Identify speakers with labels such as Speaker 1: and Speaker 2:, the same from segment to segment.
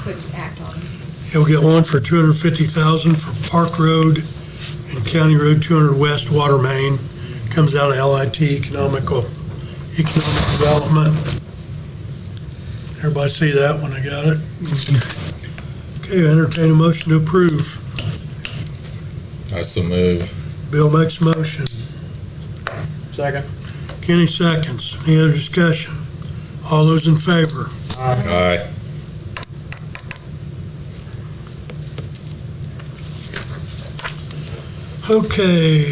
Speaker 1: could act on.
Speaker 2: It'll get one for 250,000 for Park Road and County Road 200 West Water Main. Comes out of LIT Economical, Economic Development. Everybody see that when I got it? Okay, I entertain a motion to approve.
Speaker 3: I so move.
Speaker 2: Bill makes a motion.
Speaker 4: Second.
Speaker 2: Kenny seconds. Any other discussion? All those in favor?
Speaker 3: Aye.
Speaker 2: Okay.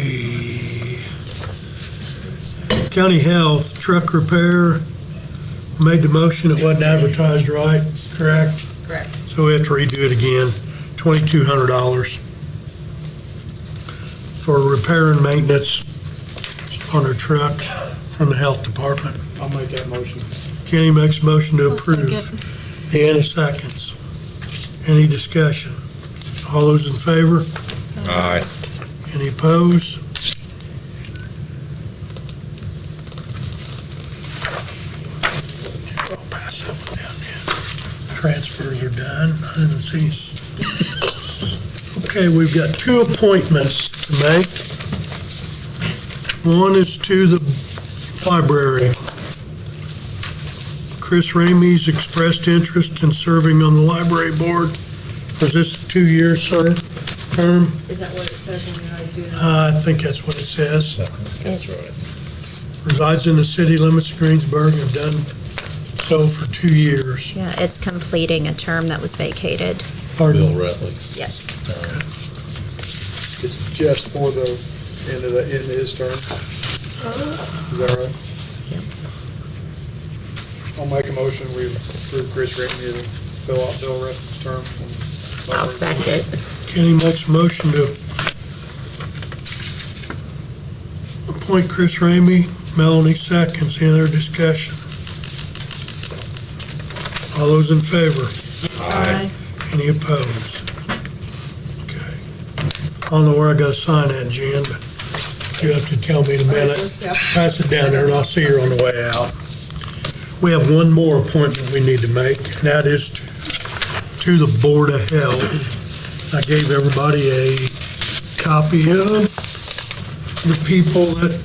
Speaker 2: County Health, truck repair, made the motion, it wasn't advertised right, correct?
Speaker 1: Correct.
Speaker 2: So we have to redo it again, twenty-two hundred dollars for repair and maintenance on a truck from the health department.
Speaker 4: I'll make that motion.
Speaker 2: Kenny makes a motion to
Speaker 1: I'll second.
Speaker 2: approve. Deanna seconds. Any discussion? All those in favor?
Speaker 3: Aye.
Speaker 2: Any opposed? I'll pass that one down then. Transfers are done, I didn't see. s- Okay, we've got two appointments to make. One is to the library. Chris Ramey's expressed interest in serving on the library board for this two-year ser- term.
Speaker 1: Is that what it says when you do that?
Speaker 2: Uh, I think that's what it says.
Speaker 1: It's
Speaker 2: Resides in the city limits of Greensburg and have done so for two years.
Speaker 5: Yeah, it's completing a term that was vacated.
Speaker 2: Pardon?
Speaker 3: Rutledge.
Speaker 5: Yes.
Speaker 4: It's just for the end of the, end of his term. Is that right?
Speaker 5: Yep.
Speaker 4: I'll make a motion, we approve Chris Ramey to fill out Bill Ruff's term.
Speaker 5: I'll second.
Speaker 2: Kenny makes a motion to appoint Chris Ramey. Melanie seconds. Any other discussion? All those in favor?
Speaker 3: Aye.
Speaker 2: Any opposed? Okay. I don't know where I gotta sign that, Jen, but you have to tell me in a minute. pass it down there, and I'll see her on the way out. We have one more appointment we need to make, and that is to, to the Board of Health. I gave everybody a copy of the people that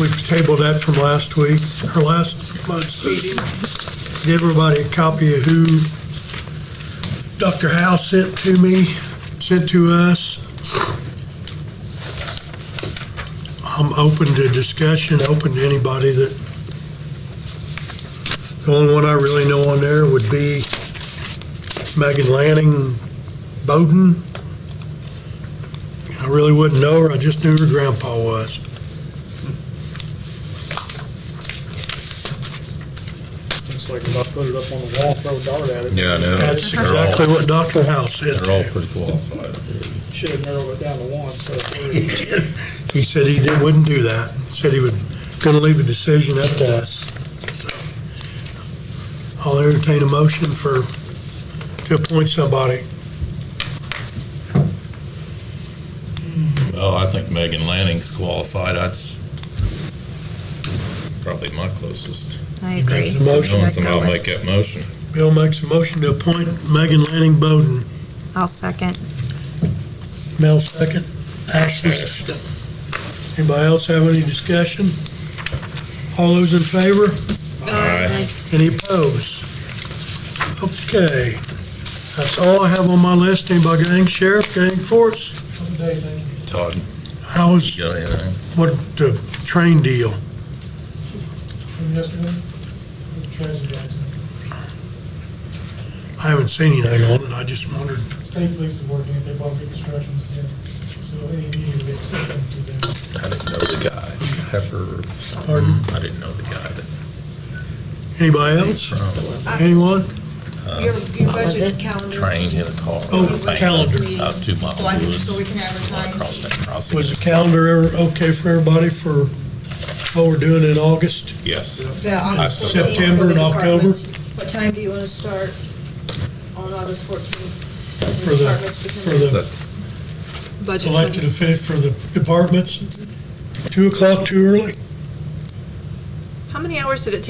Speaker 2: we tabled that from last week, or last month's meeting. Give everybody a copy of who Dr. Howe sent to me, sent to us. I'm open to discussion, open to anybody that, the only one I really know on there would be Megan Lanning Bowden. I really wouldn't know her, I just knew her grandpa was.
Speaker 4: Looks like if I put it up on the wall, throw a dart at it.
Speaker 3: Yeah, I know.
Speaker 2: That's
Speaker 3: They're all-
Speaker 2: exactly what Dr. House said.
Speaker 3: They're all pretty qualified.
Speaker 4: Should have narrowed it down to one, so.
Speaker 2: He did. He said he did- wouldn't do that, said he would, gonna leave a decision up to us. So, I'll entertain a motion for, to appoint somebody.
Speaker 3: Well, I think Megan Lanning's qualified. That's probably my closest.
Speaker 5: I agree.
Speaker 2: There's a motion.
Speaker 3: Knowing somebody will make that motion.
Speaker 2: Bill makes a motion to appoint Megan Lanning Bowden.
Speaker 5: I'll second.
Speaker 2: Mel second. Ashley second. Anybody else have any discussion? All those in favor?
Speaker 3: Aye.
Speaker 2: Any opposed? Okay. That's all I have on my list. Anybody got any sheriff, got any force?
Speaker 3: Todd,
Speaker 2: How's,
Speaker 3: you got anything?
Speaker 2: what, the train deal? I haven't seen anything on it. I just wondered.
Speaker 6: State police is working, they bought reconstructions, yeah. so they immediately they split them to them.
Speaker 3: I didn't know the guy. Heifer.
Speaker 2: Pardon?
Speaker 3: I didn't know the guy that.
Speaker 2: Anybody else? Anyone?
Speaker 1: Your, your budget calendar.
Speaker 3: Train hit a car.
Speaker 2: Oh,
Speaker 3: Bang,
Speaker 2: calendar.
Speaker 3: About two miles.
Speaker 1: So I can, so we can advertise.
Speaker 3: Across that crossing.
Speaker 2: Was the calendar ever okay for everybody for what we're doing in August?
Speaker 3: Yes.
Speaker 1: the August 14th for the
Speaker 2: September and October?
Speaker 1: departments. What time do you want to start on August 14th?
Speaker 2: For the- For the elected official, for the departments? Two o'clock too early?
Speaker 7: How many hours did it take